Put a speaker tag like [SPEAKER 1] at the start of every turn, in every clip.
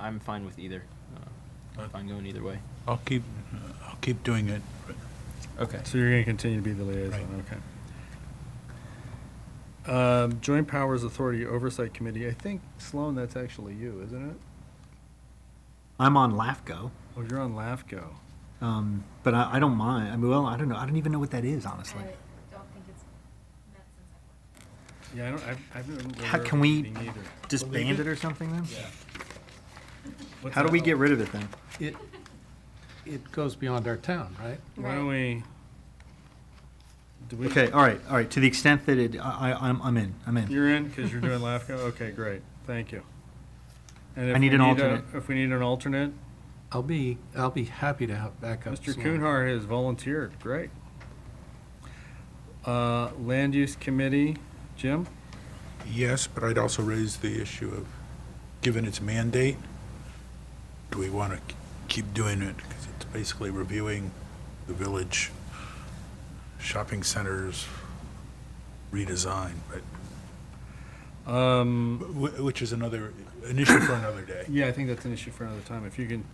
[SPEAKER 1] I'm fine with either. Uh, I'm fine going either way.
[SPEAKER 2] I'll keep, I'll keep doing it.
[SPEAKER 1] Okay.
[SPEAKER 3] So you're going to continue to be the liaison, okay. Um, Joint Powers Authority Oversight Committee, I think Sloan, that's actually you, isn't it?
[SPEAKER 4] I'm on LAFCO,
[SPEAKER 3] Oh, you're on LAFCO.
[SPEAKER 4] um, but I, I don't mind. I mean, well, I don't know. I don't even know what that is, honestly.
[SPEAKER 5] I don't think it's met since I've worked.
[SPEAKER 3] Yeah, I don't, I've, I've been
[SPEAKER 4] How
[SPEAKER 3] aware
[SPEAKER 4] can
[SPEAKER 3] of
[SPEAKER 4] we-
[SPEAKER 3] meeting either.
[SPEAKER 4] Disband
[SPEAKER 3] Believe
[SPEAKER 4] it or something then?
[SPEAKER 3] What's
[SPEAKER 4] How do
[SPEAKER 3] that?
[SPEAKER 4] we get rid of it then?
[SPEAKER 6] It, it goes beyond our town, right?
[SPEAKER 3] Why don't we? do we-
[SPEAKER 4] Okay, all right, all right. To the extent that it, I, I, I'm, I'm in, I'm in.
[SPEAKER 3] You're in, because you're doing LAFCO? Okay, great, thank you. And if
[SPEAKER 4] I need
[SPEAKER 3] we
[SPEAKER 4] an
[SPEAKER 3] a-
[SPEAKER 4] alternate.
[SPEAKER 3] If we need an alternate,
[SPEAKER 6] I'll be, I'll be happy to help back up.
[SPEAKER 3] Mr.
[SPEAKER 6] Sloan.
[SPEAKER 3] Kuhnhart has volunteered, great. Uh, Land Use Committee, Jim?
[SPEAKER 2] Yes, but I'd also raise the issue of, given its mandate, do we want to keep doing it? Because it's basically reviewing the village shopping centers redesign, but,
[SPEAKER 3] Um,
[SPEAKER 2] wh- which is another, an issue for another day.
[SPEAKER 3] Yeah, I think that's an issue for another time. If you can,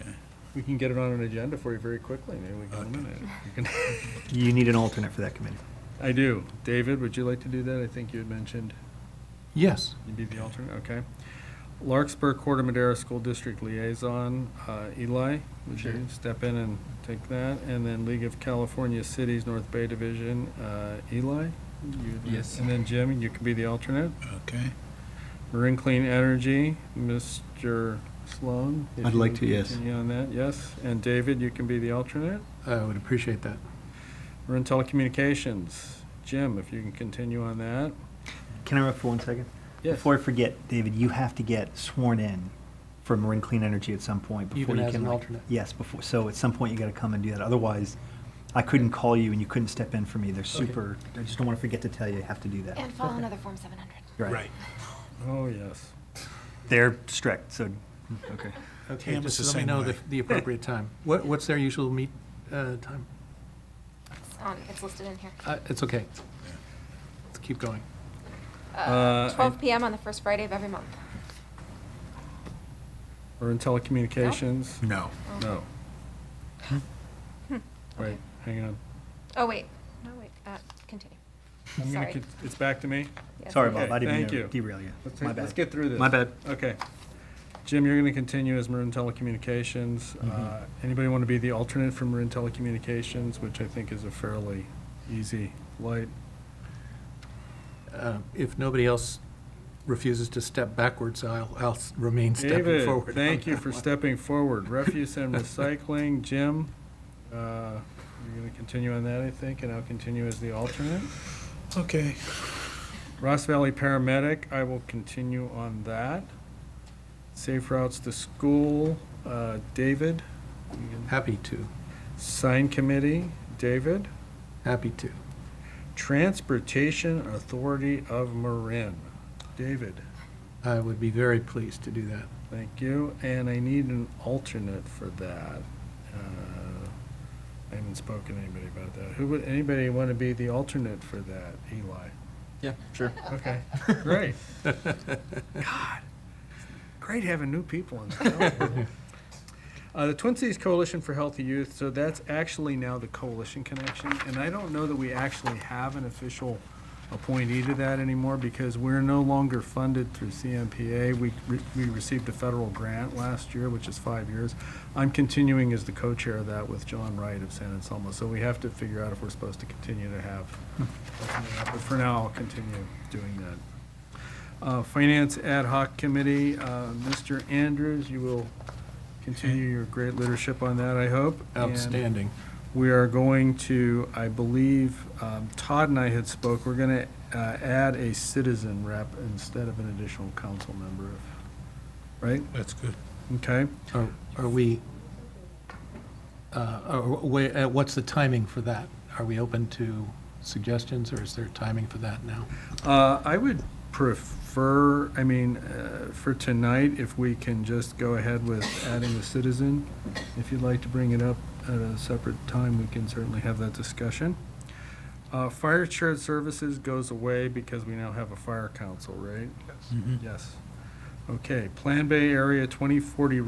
[SPEAKER 2] Okay.
[SPEAKER 3] we can get it on an agenda for you very quickly, maybe we can
[SPEAKER 2] Okay.
[SPEAKER 3] eliminate it. You can-
[SPEAKER 4] You need an alternate for that committee.
[SPEAKER 3] I do. David, would you like to do that? I think you had mentioned
[SPEAKER 6] Yes,
[SPEAKER 3] you'd be the alternate, okay. Larkspur Corder Madera School District Liaison, uh, Eli, would you step in and take that? And then League of California Cities North Bay Division, uh, Eli? you-
[SPEAKER 1] Yes.
[SPEAKER 3] And then Jim, you could be the alternate.
[SPEAKER 2] Okay?
[SPEAKER 3] Marine Clean Energy, Mr. Sloan? if
[SPEAKER 4] I'd
[SPEAKER 3] you
[SPEAKER 4] like
[SPEAKER 3] would
[SPEAKER 4] to, yes.
[SPEAKER 3] Continue on that, yes. And David, you can be the alternate.
[SPEAKER 6] I would appreciate that.
[SPEAKER 3] We're in telecommunications. Jim, if you can continue on that.
[SPEAKER 4] Can I interrupt for one second?
[SPEAKER 3] Yes.
[SPEAKER 4] Before I forget, David, you have to get sworn in for Marin Clean Energy at some point. before
[SPEAKER 6] Even
[SPEAKER 4] you
[SPEAKER 6] as
[SPEAKER 4] can,
[SPEAKER 6] an
[SPEAKER 4] like-
[SPEAKER 6] alternate?
[SPEAKER 4] Yes, before, so at some point you gotta come and do that. Otherwise, I couldn't call you and you couldn't step in for me. They're super, I just don't wanna forget to tell you, you have to do that.
[SPEAKER 5] And follow another Form 700.
[SPEAKER 4] You're
[SPEAKER 2] Right.
[SPEAKER 3] Oh, yes.
[SPEAKER 4] They're strict, so, okay.
[SPEAKER 6] Okay,
[SPEAKER 2] Tam
[SPEAKER 6] just
[SPEAKER 2] is the
[SPEAKER 6] let
[SPEAKER 2] same
[SPEAKER 6] me know the,
[SPEAKER 2] way.
[SPEAKER 6] the appropriate time. What, what's their usual meet, uh, time?
[SPEAKER 5] It's on, it's listed in here.
[SPEAKER 6] Uh, it's okay. Let's keep going.
[SPEAKER 3] Uh, I-
[SPEAKER 5] 12 PM on the first Friday of every month.
[SPEAKER 3] We're in telecommunications.
[SPEAKER 2] No.
[SPEAKER 3] No. Wait, hang on.
[SPEAKER 5] Oh, wait, no, wait, uh, continue.
[SPEAKER 3] I'm gonna
[SPEAKER 5] Sorry.
[SPEAKER 3] con- It's back to me?
[SPEAKER 5] Yes.
[SPEAKER 4] Sorry,
[SPEAKER 3] Okay,
[SPEAKER 4] Bob, I didn't mean
[SPEAKER 3] thank
[SPEAKER 4] to
[SPEAKER 3] you.
[SPEAKER 4] derail you.
[SPEAKER 3] Let's
[SPEAKER 4] My
[SPEAKER 3] take- Let's
[SPEAKER 4] bad.
[SPEAKER 3] get through this.
[SPEAKER 4] My bad.
[SPEAKER 3] Okay. Jim, you're going to continue as Marin Telecommunications.
[SPEAKER 4] Mm-hmm.
[SPEAKER 3] Uh, Anybody want to be the alternate for Marin Telecommunications, which I think is a fairly easy, light?
[SPEAKER 6] Uh, If nobody else refuses to step backwards, I'll, I'll remain stepping
[SPEAKER 3] David,
[SPEAKER 6] forward. on
[SPEAKER 3] thank you
[SPEAKER 6] that
[SPEAKER 3] for
[SPEAKER 6] one.
[SPEAKER 3] stepping forward. Refuse and recycling, Jim, uh, you're going to continue on that, I think, and I'll continue as the alternate.
[SPEAKER 2] Okay.
[SPEAKER 3] Ross Valley Paramedic, I will continue on that. Safe Routes to School, uh, David.
[SPEAKER 6] Happy to,
[SPEAKER 3] Sign Committee, David.
[SPEAKER 6] happy to.
[SPEAKER 3] Transportation Authority of Marin, David,
[SPEAKER 6] I would be very pleased to do that.
[SPEAKER 3] thank you. And I need an alternate for that. Uh, I haven't spoken to anybody about that. Who would, anybody want to be the alternate for that, Eli?
[SPEAKER 1] Yeah, sure.
[SPEAKER 3] Okay, great. God, great having new people in town. Uh, the Twin Cities Coalition for Healthy Youth, so that's actually now the Coalition Connection, and I don't know that we actually have an official appointee to that anymore because we're no longer funded through CMPA. We, re- we received a federal grant last year, which is five years. I'm continuing as the co-chair of that with John Wright of San Anselmo, so we have to figure out if we're supposed to continue to have but for now, I'll continue doing that. Uh, Finance Ad Hoc Committee, uh, Mr. Andrews, you will continue your great leadership on that, I hope. And
[SPEAKER 6] Outstanding.
[SPEAKER 3] We are going to, I believe, um, Todd and I had spoke, we're going to add a citizen rep instead of an additional council member, if- right?
[SPEAKER 2] That's good.
[SPEAKER 3] Okay?
[SPEAKER 6] Are are we, uh, are- wha- uh, what's the timing for that? Are we open to suggestions, or is there timing for that now?
[SPEAKER 3] Uh, I would prefer, I mean, uh, for tonight, if we can just go ahead with adding a citizen. If you'd like to bring it up at a separate time, we can certainly have that discussion. Uh, Fire shared services goes away because we now have a fire council, right? Yes. Okay, Plan Bay Area 2040